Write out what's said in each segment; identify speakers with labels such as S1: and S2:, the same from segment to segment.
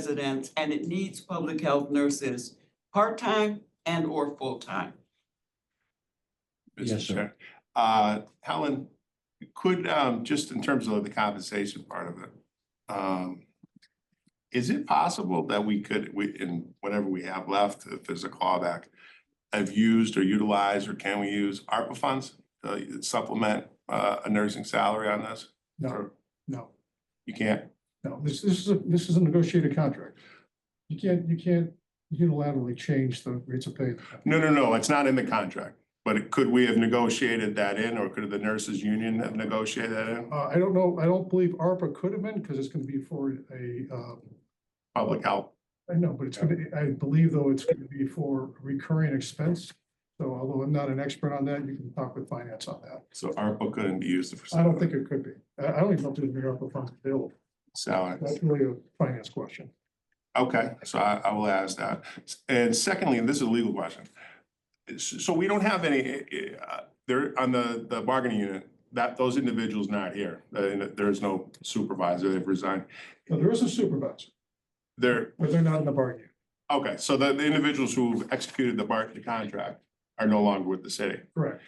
S1: residents and it needs public health nurses, part-time and or full-time.
S2: Mr.
S3: Yes, sir.
S2: Chair. Uh, Helen, could, um, just in terms of the compensation part of it, um, is it possible that we could, we, in whatever we have left, if there's a clawback, have used or utilized, or can we use ARPA funds to supplement, uh, a nursing salary on this?
S3: No,
S2: Or
S3: no,
S2: You can't?
S3: no, this, this is, a this is a negotiated contract. You can't, you can't unilaterally change the rates of pay.
S2: No, no, no, it's not in the contract, but it- could we have negotiated that in, or could the nurses union have negotiated that in?
S3: Uh, I don't know, I don't believe ARPA could have been, because it's gonna be for a, uh,
S2: Public health,
S3: I know, but it's gonna, I believe though it's gonna be for recurring expense. So although I'm not an expert on that, you can talk with finance on that.
S2: so ARPA couldn't be used for.
S3: I don't think it could be. I, I don't even know if there's been ARPA funds available.
S2: Salaries.
S3: That's really a finance question.
S2: Okay, so I, I will ask that. And secondly, and this is a legal question. S- So we don't have any, uh, there, on the, the bargaining unit, that, those individuals not here. Uh, There is no supervisor, they've resigned.
S3: Now, there is a supervisor,
S2: They're,
S3: but they're not in the bargaining.
S2: okay, so the, the individuals who've executed the bar, the contract are no longer with the city.
S3: Correct.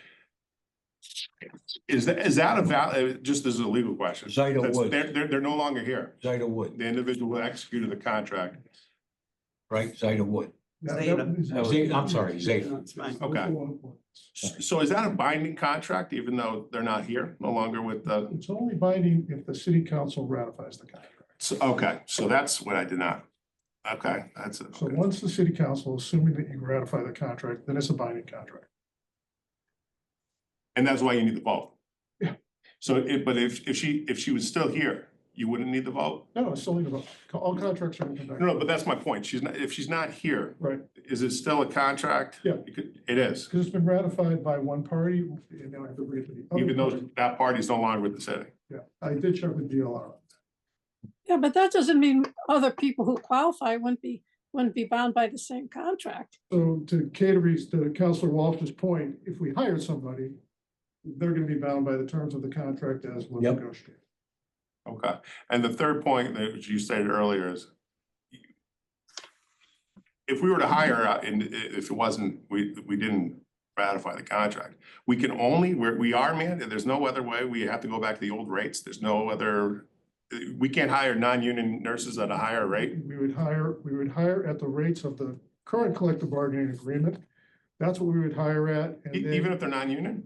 S2: Is that, is that a valid, just as a legal question?
S4: Zyda
S2: That's-
S4: Woods,
S2: They're, they're, they're no longer here.
S4: Zyda Wood,
S2: The individual who executed the contract.
S4: right, Zyda Wood.
S3: That- that-
S1: Zeta.
S4: Zeta, I'm sorry, Zeta.
S1: That's fine.
S2: Okay. S- So is that a binding contract, even though they're not here, no longer with the?
S3: It's only binding if the city council ratifies the contract.
S2: So, okay, so that's what I did not, okay, that's it.
S3: So
S2: okay.
S3: once the city council, assuming that you ratify the contract, then it's a binding contract.
S2: And that's why you need the vote.
S3: Yeah.
S2: So it, but if, if she, if she was still here, you wouldn't need the vote?
S3: No, no, it's still legal. All contracts are. written
S2: No,
S3: back.
S2: no, but that's my point. She's not, if she's not here,
S3: Right,
S2: is it still a contract?
S3: Yeah.
S2: You could- It is,
S3: because it's been ratified by one party and now I have to bring it to the other.
S2: even though
S3: party.
S2: that party's no longer with the city.
S3: Yeah, I did check with DLR.
S5: Yeah, but that doesn't mean other people who qualify wouldn't be, wouldn't be bound by the same contract.
S3: So to Caterie's, to Counselor Walsh's point, if we hire somebody, they're gonna be bound by the terms of the contract as was
S4: Yep.
S3: negotiated.
S2: Okay, and the third point that you stated earlier is if we were to hire, uh, and i- if it wasn't, we, we didn't ratify the contract, we can only, we're, we are mandated, there's no other way, we have to go back to the old rates, there's no other, uh, we can't hire non-union nurses at a higher rate, e,
S3: We would hire, we would hire at the rates of the current collective bargaining agreement. That's what we would hire at.
S2: e-
S3: and then-
S2: even if they're non-union?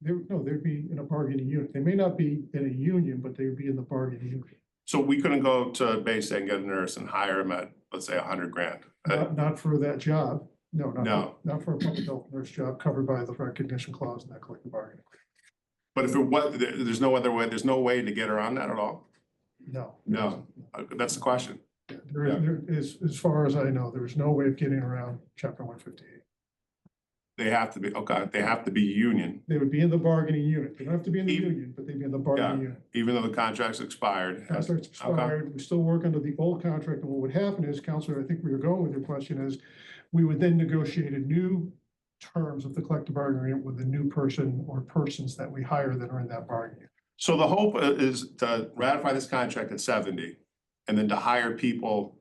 S3: There, no, they'd be in a bargaining unit. They may not be in a union, but they would be in the bargaining unit,
S2: So we couldn't go to base and get a nurse and hire them at, let's say, a hundred grand. Uh,
S3: not, not for that job. No, not,
S2: No.
S3: for- not for a public health nurse job covered by the recognition clause in that collective bargaining.
S2: But if it was, there, there's no other way, there's no way to get around that at all?
S3: agreement. No.
S2: No. Uh, That's the question.
S3: There is, there is, as far as I know, there is no way of getting around chapter one fifty-eight.
S2: They have to be, okay, they have to be union,
S3: They would be in the bargaining unit. They don't have to be in the
S2: Even-
S3: union, but they'd be in the bargaining unit.
S2: even though the contract's expired.
S3: Contract's expired, we still work under the old contract, and what would happen is, Counselor, I think where you're going with your question is, we would then negotiate a new terms of the collective bargaining agreement with the new person or persons that we hire that are in that bargaining.
S2: So the hope i- is to ratify this contract at seventy and then to hire people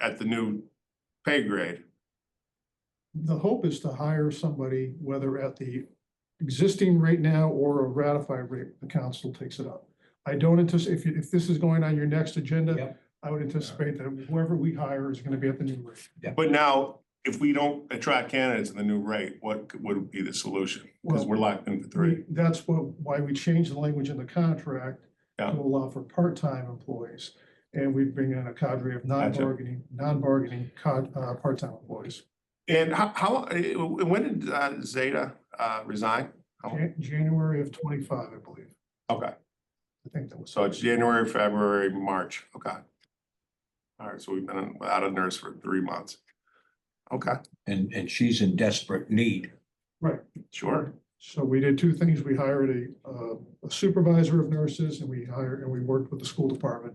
S2: at the new pay grade.
S3: The hope is to hire somebody, whether at the existing rate now or a ratified rate, the council takes it up. I don't anticipate, if, you- if this is going on your next agenda,
S4: Yep.
S3: I would anticipate that whoever we hire is gonna be at the new rate.
S2: But now, if we don't attract candidates at the new rate, what c- would be the solution? Because
S3: Well,
S2: we're locked in for
S3: Three,
S2: three.
S3: that's what, why we changed the language in the contract to
S2: Yeah.
S3: allow for part-time employees. And we bring in a cadre of non-bargaining, non-bargaining cod, uh, part-time employees.
S2: And how, how, uh, w- when did uh, Zeta uh, resign? Oh.
S3: Jan- January of twenty-five, I believe.
S2: Okay,
S3: I think that was,
S2: so it's January, February, March, okay. All right, so we've been without a nurse for three months. Okay,
S4: and, and she's in desperate need.
S2: sure.
S3: so we did two things. We hired a, uh, a supervisor of nurses and we hired, and we worked with the school department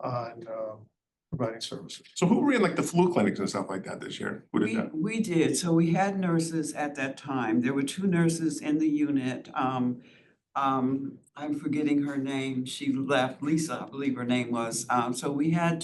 S3: on, um, providing services.
S2: So who ran like the flu clinics and stuff like that this year? Who did
S1: We,
S2: that?
S1: we did, so we had nurses at that time, there were two nurses in the unit, um, um, I'm forgetting her name, she left, Lisa, I believe her name was, um, so we had